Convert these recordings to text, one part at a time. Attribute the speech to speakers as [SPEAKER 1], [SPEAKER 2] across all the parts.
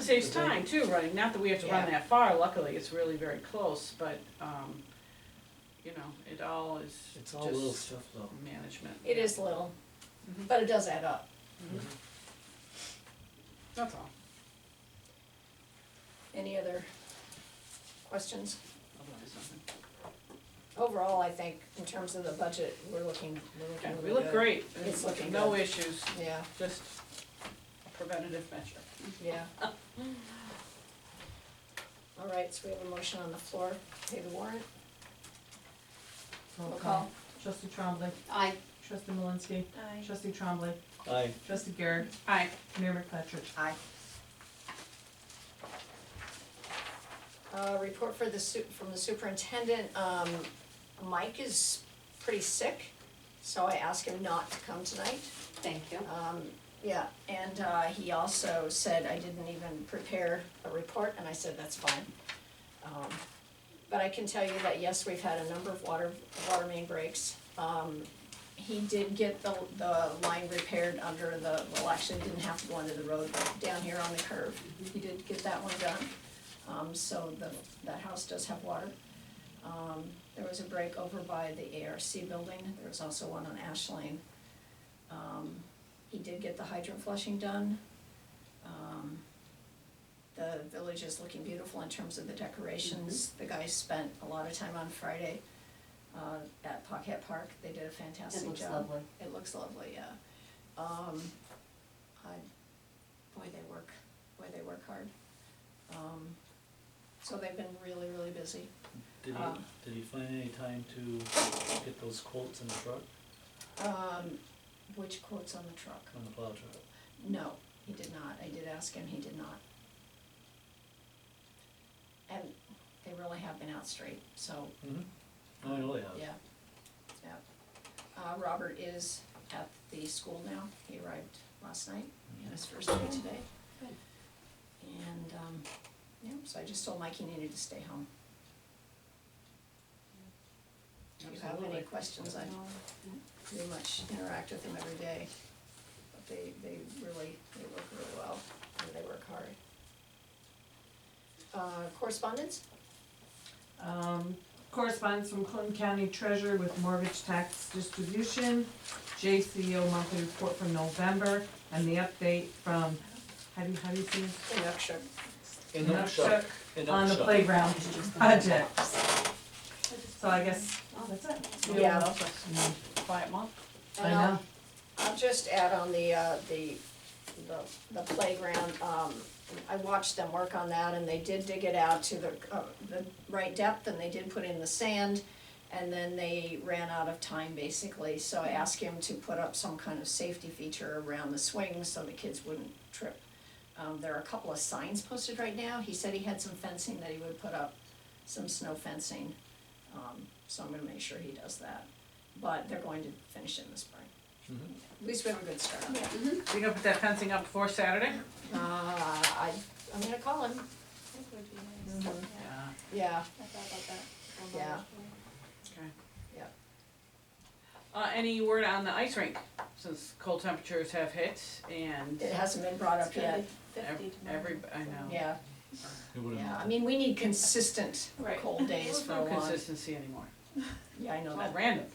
[SPEAKER 1] saves time too, running, not that we have to run
[SPEAKER 2] Yeah.
[SPEAKER 1] that far, luckily, it's really very close, but, um, you know, it all is
[SPEAKER 3] It's all little
[SPEAKER 1] just
[SPEAKER 3] stuff though.
[SPEAKER 1] management. Mm-hmm.
[SPEAKER 2] It is little, but it does add up.
[SPEAKER 1] That's all.
[SPEAKER 2] Any other questions?
[SPEAKER 1] Otherwise, nothing.
[SPEAKER 2] Overall, I think in terms of the budget, we're looking, we're looking
[SPEAKER 1] Yeah,
[SPEAKER 2] really
[SPEAKER 1] we look
[SPEAKER 2] good.
[SPEAKER 1] great,
[SPEAKER 2] It's looking
[SPEAKER 1] no
[SPEAKER 2] good.
[SPEAKER 1] issues,
[SPEAKER 2] Yeah,
[SPEAKER 1] just a preventative measure.
[SPEAKER 2] yeah. All right, so we have a motion on the floor, pay the warrant,
[SPEAKER 4] Roll
[SPEAKER 2] Roll
[SPEAKER 4] call.
[SPEAKER 2] call.
[SPEAKER 4] Trustee Trombley.
[SPEAKER 2] Aye.
[SPEAKER 4] Trustee Malinsky. Aye. Trustee Trombley.
[SPEAKER 3] Aye,
[SPEAKER 4] Trustee Garrett.
[SPEAKER 1] Aye.
[SPEAKER 4] Mayor McFetrich. Aye.
[SPEAKER 2] Uh, report for the su- from the superintendent, um, Mike is pretty sick, so I asked him not to come tonight.
[SPEAKER 5] Thank you.
[SPEAKER 2] Um, yeah, and, uh, he also said I didn't even prepare a report, and I said, that's fine. Um, but I can tell you that, yes, we've had a number of water, water main breaks. Um, he did get the, the line repaired under the, well, actually didn't have to go under the road, but down here on the curve. He did get that one done, um, so the, that house does have water. Um, there was a break over by the ARC building, there was also one on Ash Lane. Um, he did get the hydrant flushing done. Um, The village is looking beautiful in terms of the decorations.
[SPEAKER 5] Mm-hmm.
[SPEAKER 2] The guys spent a lot of time on Friday uh, at Pocket Park. They did a
[SPEAKER 5] It
[SPEAKER 2] fantastic
[SPEAKER 5] looks
[SPEAKER 2] job.
[SPEAKER 5] lovely.
[SPEAKER 2] It looks lovely, yeah. Um, I, boy, they work, boy, they work hard. Um, so they've been really, really busy.
[SPEAKER 3] did
[SPEAKER 2] Uh.
[SPEAKER 3] he, did he find any time to get those quotes in the truck,
[SPEAKER 2] Um, which quotes on the truck?
[SPEAKER 3] on the plow truck?
[SPEAKER 2] No, he did not. I did ask him, he did not. And they really have been out straight, so,
[SPEAKER 3] Mm-hmm. I know they have.
[SPEAKER 2] yeah, yeah. Uh, Robert is at the school now. He arrived last night. He had his first day today.
[SPEAKER 5] Good.
[SPEAKER 2] And, um, yeah, so I just told Mike he needed to stay home. If you have any
[SPEAKER 1] Absolutely.
[SPEAKER 2] questions, I pretty much interact with them every day. But they, they really, they work really well, and they work hard. Uh, correspondence?
[SPEAKER 4] Um, correspondence from Clinton County Treasurer with mortgage tax distribution, JCO monthly report from November, and the update from, how do you, how do you see this?
[SPEAKER 2] Conjecture.
[SPEAKER 3] In the truck, in the
[SPEAKER 4] On the
[SPEAKER 3] truck.
[SPEAKER 4] playground projects. So I guess, oh, that's it.
[SPEAKER 2] Yeah.
[SPEAKER 4] Mm,
[SPEAKER 1] Quiet month.
[SPEAKER 4] I know.
[SPEAKER 2] I'll just add on the, uh, the, the, the playground, um, I watched them work on that and they did dig it out to the, uh, the right depth and they did put in the sand. And then they ran out of time basically, so I asked him to put up some kind of safety feature around the swings so the kids wouldn't trip. Um, there are a couple of signs posted right now, he said he had some fencing that he would put up, some snow fencing. Um, so I'm gonna make sure he does that, but they're going to finish it in the spring.
[SPEAKER 3] Mhm.
[SPEAKER 2] At least we have a good start on it.
[SPEAKER 1] You gonna put that fencing up before Saturday?
[SPEAKER 2] Uh, I, I'm gonna call him,
[SPEAKER 5] That would be nice.
[SPEAKER 2] Mhm.
[SPEAKER 5] Yeah,
[SPEAKER 1] Yeah.
[SPEAKER 2] yeah,
[SPEAKER 5] I thought about that. Although-
[SPEAKER 2] Yeah.
[SPEAKER 1] Okay.
[SPEAKER 2] Yep.
[SPEAKER 1] Uh, any word on the ice rink, since cold temperatures have hit and
[SPEAKER 2] it hasn't been brought up
[SPEAKER 5] It's gonna
[SPEAKER 2] yet,
[SPEAKER 5] be fifty
[SPEAKER 1] every,
[SPEAKER 5] tomorrow.
[SPEAKER 1] every, I know.
[SPEAKER 2] yeah,
[SPEAKER 3] It would've-
[SPEAKER 2] yeah, I mean, we need consistent
[SPEAKER 5] Right.
[SPEAKER 2] cold days
[SPEAKER 1] There's
[SPEAKER 2] for
[SPEAKER 1] no
[SPEAKER 2] a long,
[SPEAKER 1] consistency anymore,
[SPEAKER 2] yeah, I know
[SPEAKER 1] it's all
[SPEAKER 2] that,
[SPEAKER 1] random.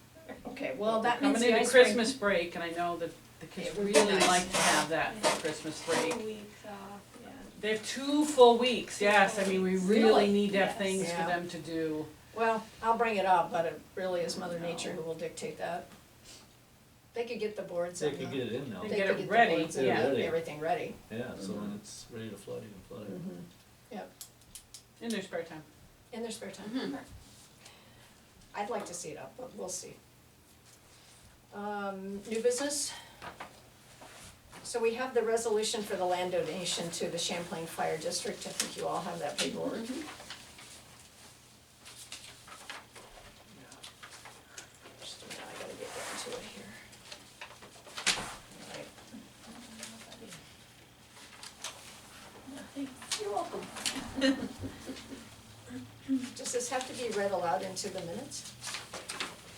[SPEAKER 2] okay, well, that means
[SPEAKER 1] Coming
[SPEAKER 2] the
[SPEAKER 1] into
[SPEAKER 2] ice rink-
[SPEAKER 1] Christmas break, and I know that the kids
[SPEAKER 2] It would be
[SPEAKER 1] really
[SPEAKER 2] nice.
[SPEAKER 1] like to have that
[SPEAKER 5] Yeah.
[SPEAKER 1] for Christmas break.
[SPEAKER 5] Two weeks off, yeah.
[SPEAKER 1] They have two full weeks,
[SPEAKER 5] Two
[SPEAKER 1] yes, I
[SPEAKER 5] full
[SPEAKER 1] mean, we
[SPEAKER 5] weeks.
[SPEAKER 1] really
[SPEAKER 2] Really?
[SPEAKER 1] need to have
[SPEAKER 5] Yes.
[SPEAKER 1] things for
[SPEAKER 2] Yeah.
[SPEAKER 1] them to do.
[SPEAKER 2] Well, I'll bring it up, but it really is mother
[SPEAKER 1] No.
[SPEAKER 2] nature who will dictate that. They could get the boards
[SPEAKER 3] They
[SPEAKER 2] and the,
[SPEAKER 3] could get it in now,
[SPEAKER 1] They
[SPEAKER 2] uh, they Mm-hmm.
[SPEAKER 1] get
[SPEAKER 2] could
[SPEAKER 1] it
[SPEAKER 2] get the
[SPEAKER 1] ready,
[SPEAKER 2] boards and
[SPEAKER 3] yeah.
[SPEAKER 2] the- everything ready,
[SPEAKER 3] yeah, so when it's ready to flood, you can flood it.
[SPEAKER 2] Mhm.
[SPEAKER 1] In their spare time.
[SPEAKER 2] in their spare time.
[SPEAKER 5] Mm-hmm.
[SPEAKER 2] I'd like to see it up, but we'll see. Um, new business? So we have the resolution for the land donation to the Champlain Fire District, I think you all have that paperwork. Just a minute, I gotta get down to it here. Alright.
[SPEAKER 5] You're welcome.
[SPEAKER 2] Does this have to be read aloud into the minutes?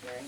[SPEAKER 2] Mary?